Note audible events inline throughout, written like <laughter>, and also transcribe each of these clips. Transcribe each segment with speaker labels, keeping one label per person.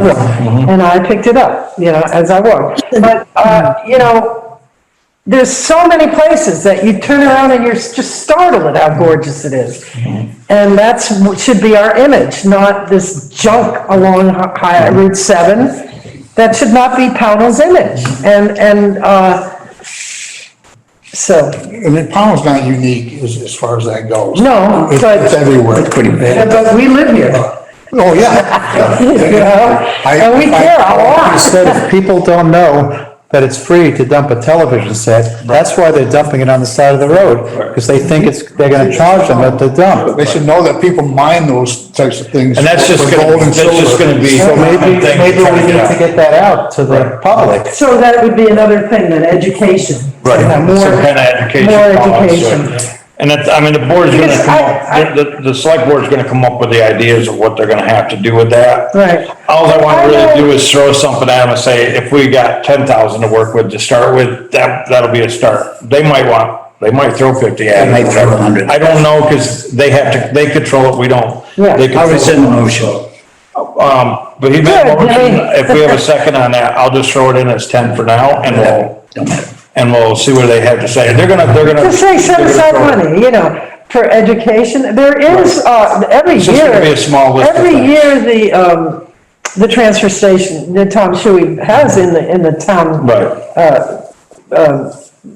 Speaker 1: work.
Speaker 2: Mm-hmm.
Speaker 1: And I picked it up, you know, as I walked. But, uh, you know, there's so many places that you turn around and you're just startled at how gorgeous it is.
Speaker 2: Mm-hmm.
Speaker 1: And that's, what should be our image, not this junk along Hi- Hi-
Speaker 2: Mm-hmm.
Speaker 1: Route 7. That should not be Pownell's image. And, and, uh, so,
Speaker 2: I mean, Pownell's not unique as, as far as that goes.
Speaker 1: No,
Speaker 2: It's
Speaker 1: but-
Speaker 2: it's everywhere. It's pretty
Speaker 1: but we live here, <laughs>
Speaker 2: Oh, yeah.
Speaker 1: you know?
Speaker 2: I-
Speaker 1: And we care a lot.
Speaker 3: Instead, if people don't know that it's free to dump a television set, that's why they're dumping it on the side of the road, because they think it's, they're gonna charge them at the dump.
Speaker 2: They should know that people mine those types of things.
Speaker 4: And that's just
Speaker 2: for
Speaker 4: gonna,
Speaker 2: gold and
Speaker 4: that's just
Speaker 2: silver.
Speaker 4: gonna be.
Speaker 3: So maybe,
Speaker 4: something
Speaker 3: maybe we
Speaker 4: to try to
Speaker 3: need
Speaker 4: get
Speaker 3: to get that out to the public.
Speaker 1: So that would be another thing, then education.
Speaker 4: Right,
Speaker 1: Yeah, more-
Speaker 4: some kind of education.
Speaker 1: More
Speaker 4: policy.
Speaker 1: education.
Speaker 4: And that's, I mean, the board's gonna
Speaker 1: Because
Speaker 4: come
Speaker 1: I-
Speaker 4: up, the, the, the select board's gonna come up with the ideas of what they're gonna have to do with that.
Speaker 1: Right.
Speaker 4: All I
Speaker 1: I
Speaker 4: wanna
Speaker 1: know-
Speaker 4: really do is throw something at them and say, if we got ten thousand to work with to start with, that, that'll be a start. They might want, they might throw fifty at it.
Speaker 5: They might throw 100.
Speaker 4: I don't know, cause they have to, they control it, we don't.
Speaker 1: Yeah.
Speaker 4: They
Speaker 5: I
Speaker 4: control
Speaker 5: was in the motion.
Speaker 4: Um, but he made
Speaker 1: Good,
Speaker 4: a motion,
Speaker 1: Dave. <laughs>
Speaker 4: if we have a second on that, I'll just throw it in as ten for now, and we'll, and we'll see what they have to say, they're gonna, they're gonna.
Speaker 1: To say set
Speaker 4: they're gonna
Speaker 1: aside
Speaker 4: throw it.
Speaker 1: money, you know, for education, there is, uh, every
Speaker 4: just
Speaker 1: year.
Speaker 4: gonna be a small list of
Speaker 1: Every
Speaker 4: things.
Speaker 1: year, the, um, the transfer station, that Tom Shuey has in the, in the town.
Speaker 4: Right,
Speaker 5: Yeah.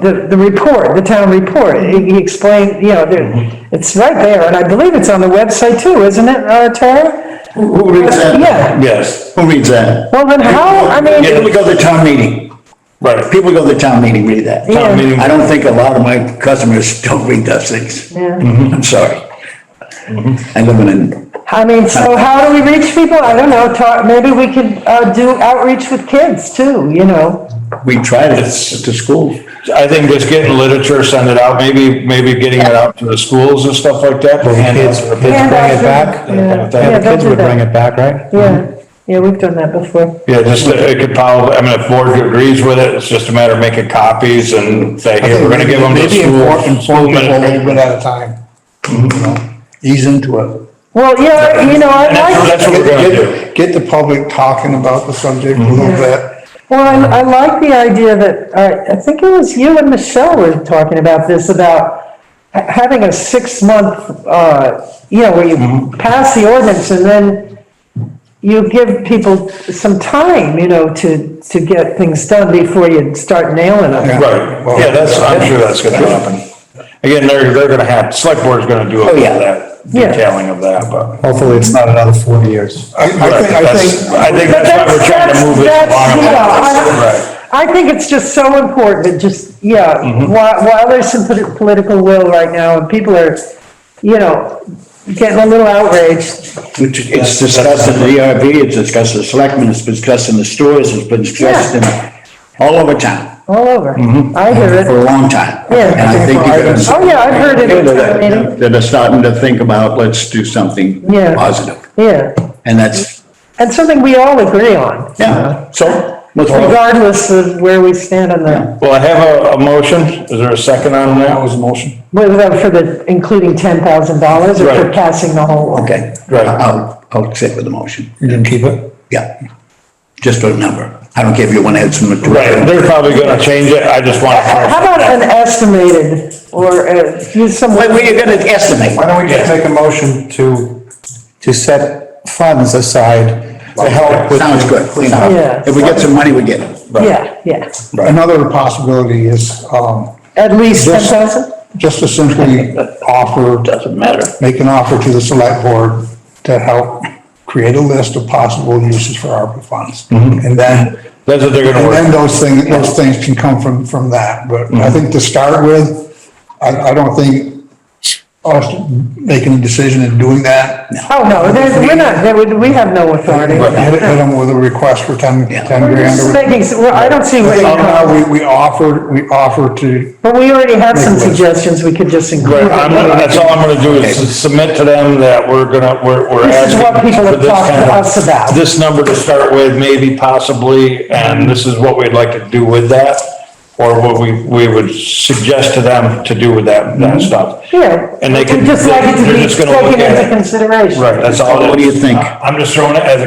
Speaker 1: The, the report, the town report, he he explained, you know, there,
Speaker 4: Mm-hmm.
Speaker 1: it's right there, and I believe it's on the website too, isn't it, uh, Tara?
Speaker 5: Who reads that?
Speaker 1: Yeah,
Speaker 4: yes,
Speaker 5: Who reads that?
Speaker 1: well, then how, I mean,
Speaker 5: People go to town meeting.
Speaker 4: right,
Speaker 5: People go to town meeting, read that.
Speaker 1: Yeah.
Speaker 4: town meeting,
Speaker 5: I don't think a lot of my customers <laughs> don't read those things. I'm sorry.
Speaker 4: Mm-hmm.
Speaker 5: I live in, a-
Speaker 1: I mean, so how do we reach people? I don't know, talk, maybe we could, uh, do outreach with kids too, you know?
Speaker 5: we tried it at the school.
Speaker 4: I think just getting literature, send it out, maybe, maybe getting it out to the schools and stuff like that.
Speaker 3: Well, the kids, kids bring it back,
Speaker 1: Yeah.
Speaker 3: the
Speaker 1: Yeah, don't
Speaker 3: kids
Speaker 1: do
Speaker 3: would bring
Speaker 1: that.
Speaker 3: it back, right?
Speaker 1: Yeah, yeah, we've done that before.
Speaker 4: Yeah, just, uh, it could probably, I mean, if board agrees with it, it's just a matter of making copies and say, hey, we're gonna give them to
Speaker 2: Maybe
Speaker 4: school.
Speaker 2: inform,
Speaker 4: school Mm-hmm.
Speaker 2: inform people a little
Speaker 4: administration.
Speaker 2: bit at a time, you know, ease into it.
Speaker 1: Well, yeah, you know, I
Speaker 4: And that's,
Speaker 1: like,
Speaker 4: that's what we're gonna do.
Speaker 2: Get- Get the public talking about the subject a little bit.
Speaker 1: well,
Speaker 4: Um,
Speaker 1: I, I like the idea that, uh, I think it was you and Michelle were talking about this, about ha- having a six-month, uh, you know, where
Speaker 4: Mm-hmm.
Speaker 1: you pass the ordinance and then you give people some time, you know, to, to get things done before you start nailing them.
Speaker 4: Right, yeah, that's, I'm sure that's gonna happen. Again, they're, they're gonna have, select board's gonna do a lot of
Speaker 5: yeah.
Speaker 4: that,
Speaker 1: Yeah.
Speaker 4: detailing of that, but.
Speaker 3: Hopefully, it's not another forty years.
Speaker 2: I, I think, I
Speaker 4: That's-
Speaker 2: think.
Speaker 4: I think that's why we're trying to move it
Speaker 1: That's-
Speaker 4: along.
Speaker 1: that's- yeah,
Speaker 4: Right, Mm-hmm.
Speaker 1: I I think it's just so important, that just, yeah, while, while there's some polit- political will right now, and people are, you know, getting a little outraged,
Speaker 5: Which It's discussed in the ERB, it's discussed in the selectmen, it's discussed in the stores, it's been discussed in all over town
Speaker 1: all over. I hear
Speaker 5: for
Speaker 1: it,
Speaker 5: a long time.
Speaker 1: Yeah.
Speaker 5: And I think you're gonna.
Speaker 1: Oh, yeah, I've heard it at the town meeting.
Speaker 5: That are starting to think about, let's do something
Speaker 1: Yeah.
Speaker 5: positive.
Speaker 1: yeah,
Speaker 5: And that's,
Speaker 1: and something we all agree on,
Speaker 5: yeah, so let's.
Speaker 1: regardless of where we stand on the,
Speaker 4: well, I have a, a motion, is there a second on that?
Speaker 2: was a motion.
Speaker 1: whether for the, including ten thousand dollars or for
Speaker 4: Right.
Speaker 1: passing the whole.
Speaker 5: Okay,
Speaker 4: Right.
Speaker 5: I'll, I'll sit with the motion.
Speaker 2: You didn't keep it?
Speaker 5: Yeah. Just a number. I don't care if you want to add some.
Speaker 4: Right, they're probably gonna change it, I just want
Speaker 1: How
Speaker 4: to.
Speaker 1: about an estimated, or, uh, use some.
Speaker 5: Wait, we're gonna estimate.
Speaker 2: Why don't we just make a motion to,
Speaker 3: To set funds aside to help with.
Speaker 5: Sounds good, clean up.
Speaker 1: Yeah.
Speaker 5: If we get some money, we get it.
Speaker 1: Yeah, yeah,
Speaker 2: another possibility is, um,
Speaker 1: at least ten
Speaker 2: Just-
Speaker 1: thousand?
Speaker 2: just to simply offer. Doesn't matter. Make an offer to the select board to help create a list of possible uses for ARPA funds. And then,
Speaker 4: That's what they're gonna
Speaker 2: and then
Speaker 4: work,
Speaker 2: those things, those things can come from, from that. But I think to start with, I, I don't think us making a decision and doing that.
Speaker 1: Oh, no, there's, we're not, there would- we have no authority.
Speaker 2: But hit hit them with a request for ten, ten
Speaker 1: We're
Speaker 2: grand.
Speaker 1: just
Speaker 2: or-
Speaker 1: making, s- well, I don't see where
Speaker 2: I
Speaker 1: you
Speaker 2: think now
Speaker 1: come,
Speaker 2: we, we offer, we offer to
Speaker 1: but we already have some
Speaker 2: Make a list.
Speaker 1: suggestions we could just include.
Speaker 4: Right, I'm, gonna- that's all I'm gonna do is submit to them that we're gonna, we're, we're
Speaker 1: This is
Speaker 4: asking.
Speaker 1: what people have
Speaker 4: for this
Speaker 1: talked to
Speaker 4: kind of-
Speaker 1: us about.
Speaker 4: This number to start with, maybe possibly, and this is what we'd like to do with that, or what we, we would suggest to them to do with that, that stuff.
Speaker 1: Yeah.
Speaker 4: And they can,
Speaker 1: Mm-hmm. Just like it
Speaker 4: they're
Speaker 1: to be
Speaker 4: just gonna look
Speaker 1: taken into
Speaker 4: at it.
Speaker 1: consideration.
Speaker 4: Right, that's all.
Speaker 5: What do you think?
Speaker 4: I'm just throwing it as a